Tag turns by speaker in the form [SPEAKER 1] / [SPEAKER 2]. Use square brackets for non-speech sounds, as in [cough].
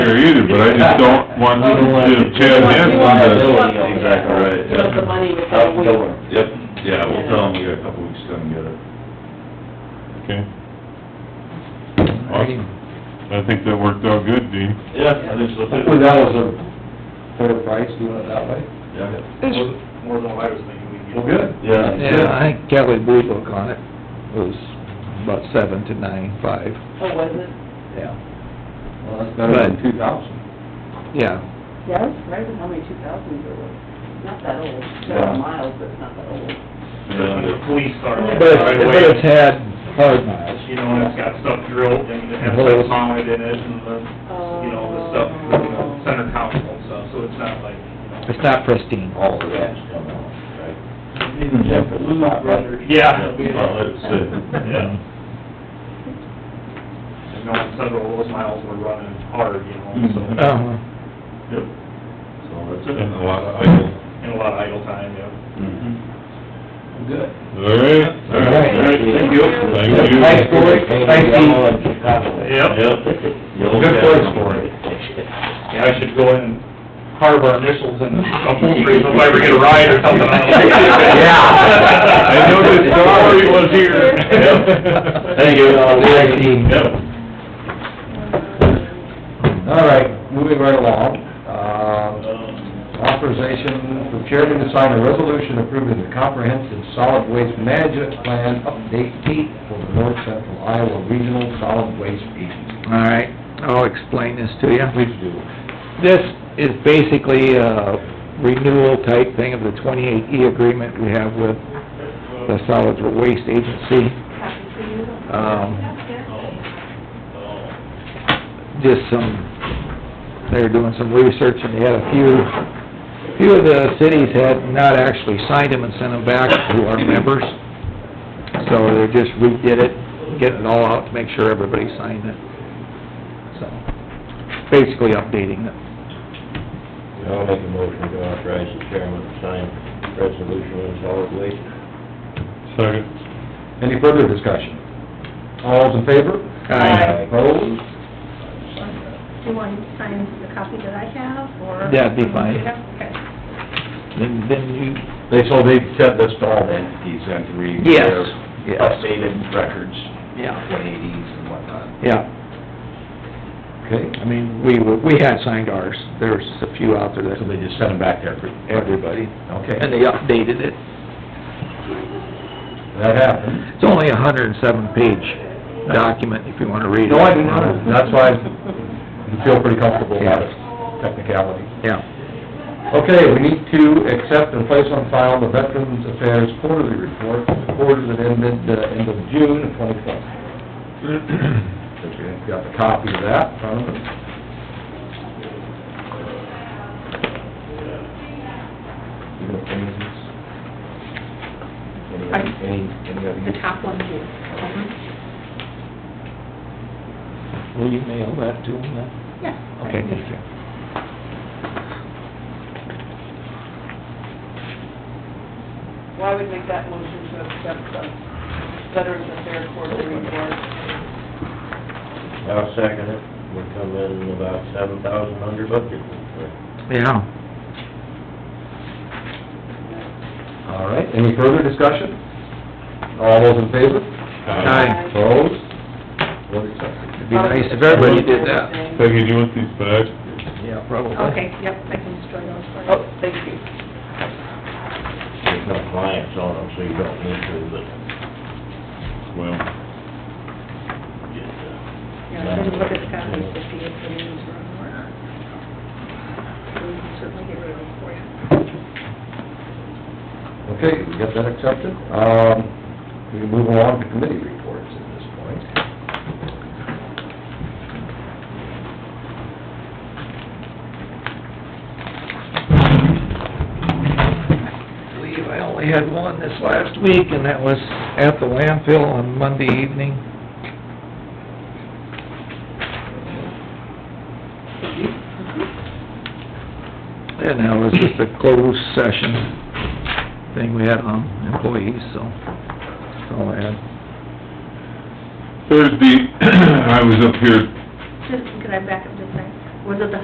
[SPEAKER 1] but I just don't want to Chad Hanson to...
[SPEAKER 2] Exactly right, yeah.
[SPEAKER 3] Because the money
[SPEAKER 4] Oh,
[SPEAKER 3] was-
[SPEAKER 2] Out the door. Yep, yeah, we'll tell them we got a couple weeks to come get it.
[SPEAKER 1] Okay, I think that worked out good, Dean.
[SPEAKER 2] Yeah, I think so
[SPEAKER 5] Hopefully that was a fair price, doing it that way.
[SPEAKER 2] Yeah,
[SPEAKER 6] More than what I was thinking we could get.
[SPEAKER 5] Well, good.
[SPEAKER 2] yeah.
[SPEAKER 7] Yeah, I think Kelly Blue Book on it was about seven to nine, five,
[SPEAKER 3] Oh, was it?
[SPEAKER 7] yeah,
[SPEAKER 5] Well, that's better than
[SPEAKER 7] But-
[SPEAKER 5] two thousand.
[SPEAKER 7] yeah.
[SPEAKER 3] Yeah, I was surprised at how many two thousands there were. Not that old,
[SPEAKER 5] Yeah.
[SPEAKER 3] several miles, but it's not that old.
[SPEAKER 5] uh,
[SPEAKER 6] And The police car.
[SPEAKER 3] But
[SPEAKER 7] But
[SPEAKER 6] right
[SPEAKER 7] it's, but
[SPEAKER 6] away,
[SPEAKER 7] it's had hard miles.
[SPEAKER 6] You know, and it's got stuff drilled and it has
[SPEAKER 7] Holes.
[SPEAKER 6] stuff mounted in it and the, you know, the stuff, you know, center council and stuff, so it's not like, you know.
[SPEAKER 7] It's not pristine.
[SPEAKER 2] All the rats come out, right? Even Jeff is not right.
[SPEAKER 6] Yeah.
[SPEAKER 2] Mm-hmm. Well, it's, uh,
[SPEAKER 6] Yeah. And knowing several of those miles were running hard, you know, so.
[SPEAKER 7] Uh-huh.
[SPEAKER 6] Yep.
[SPEAKER 2] So that's it.
[SPEAKER 1] And a lot
[SPEAKER 5] [laughs]
[SPEAKER 1] of idle.
[SPEAKER 6] And a lot of idle time, yeah.
[SPEAKER 5] Mm-hmm. Good.
[SPEAKER 1] All right.
[SPEAKER 2] All right, thank you.
[SPEAKER 1] Thank you.
[SPEAKER 5] Thanks, Cory. Thanks, Dean.
[SPEAKER 2] Yep. Yep.
[SPEAKER 5] Good place for it.
[SPEAKER 6] Yeah, I should go in and carve our initials in the upholstery if I ever get a ride or
[SPEAKER 5] [laughs]
[SPEAKER 6] something. I don't
[SPEAKER 2] Yeah.
[SPEAKER 1] I
[SPEAKER 6] know.
[SPEAKER 1] knew this story was here.
[SPEAKER 6] Yep.
[SPEAKER 2] Thank you.
[SPEAKER 5] Thanks, Dean.
[SPEAKER 6] Yep.
[SPEAKER 5] All right, moving right along. Uh, Authorization for chairman to sign a resolution approving the comprehensive solid waste management plan update date for the North Central Iowa Regional Solid Waste Agency.
[SPEAKER 7] All right, I'll explain this to you.
[SPEAKER 5] Please do.
[SPEAKER 7] This is basically a renewal type thing of the twenty-eight E agreement we have with the Solid Waste Agency. Um, just some, they were doing some research and they had a few, few of the cities had not actually signed them and sent them back to our members. So they just redid it, getting it all out to make sure everybody signed it. So, basically updating it.
[SPEAKER 2] I'll make a motion to authorize the chairman to sign resolution on solid waste.
[SPEAKER 1] Second.
[SPEAKER 5] Any further discussion? All those in favor?
[SPEAKER 7] Aye.
[SPEAKER 5] Opposed?
[SPEAKER 4] Do you want to sign the copy that I have, or?
[SPEAKER 7] That'd be fine.
[SPEAKER 4] Okay.
[SPEAKER 7] Then, then you,
[SPEAKER 2] They, so they sent this to all the entities and to read
[SPEAKER 7] Yes,
[SPEAKER 2] their
[SPEAKER 7] yes.
[SPEAKER 2] updated records,
[SPEAKER 7] yeah,
[SPEAKER 2] one eighties and whatnot.
[SPEAKER 7] yeah,
[SPEAKER 5] Okay,
[SPEAKER 7] I mean, we, were- we had signed ours, there's a few out there
[SPEAKER 2] So
[SPEAKER 7] that,
[SPEAKER 2] they just sent them back there for
[SPEAKER 7] everybody, and
[SPEAKER 2] Okay,
[SPEAKER 7] they updated it.
[SPEAKER 5] that happened.
[SPEAKER 7] It's only a hundred and seven page document, if you wanna read it.
[SPEAKER 5] No, I didn't know. That's why I feel pretty comfortable about it, technicality.
[SPEAKER 7] Yeah,
[SPEAKER 5] Okay, we need to accept and place on file the Veterans Affairs Quarterly Report, for the quarter that ended, uh, end of June of twenty twelve. If you've got the copy of that in front of us.
[SPEAKER 2] you know, any, any, any other?
[SPEAKER 4] The top one here. Mhm.
[SPEAKER 7] will you mail that to them then?
[SPEAKER 4] Yeah.
[SPEAKER 7] Okay, thank you.
[SPEAKER 3] Well, I would make that motion to accept the Veterans Affairs quarterly report.
[SPEAKER 2] I'll second it. We come in about seven thousand under budget.
[SPEAKER 7] Yeah,
[SPEAKER 5] All right, any further discussion? All those in favor?
[SPEAKER 7] Aye.
[SPEAKER 5] Opposed? What is that?
[SPEAKER 7] it'd be nice if everybody did that.
[SPEAKER 1] Peggy, do you want these back?
[SPEAKER 7] Yeah, probably.
[SPEAKER 4] Okay, yep, I can destroy those for you.
[SPEAKER 3] Oh, thank you.
[SPEAKER 2] There's no clients on them, so you don't need to, but
[SPEAKER 1] Well,
[SPEAKER 2] just, uh,
[SPEAKER 4] Yeah, I didn't look at the copies to see if the names were on or not. We can certainly get rid of them for you.
[SPEAKER 5] Okay, we got that accepted. Um, we can move along to committee reports at this point.
[SPEAKER 7] I believe I only had one this last week, and that was at the landfill on Monday evening. And that was just a closed session thing we had on employees, so, that's all I had.
[SPEAKER 1] Thursday, [clears throat] I was up here
[SPEAKER 4] Just, could I back up just a second? Was it the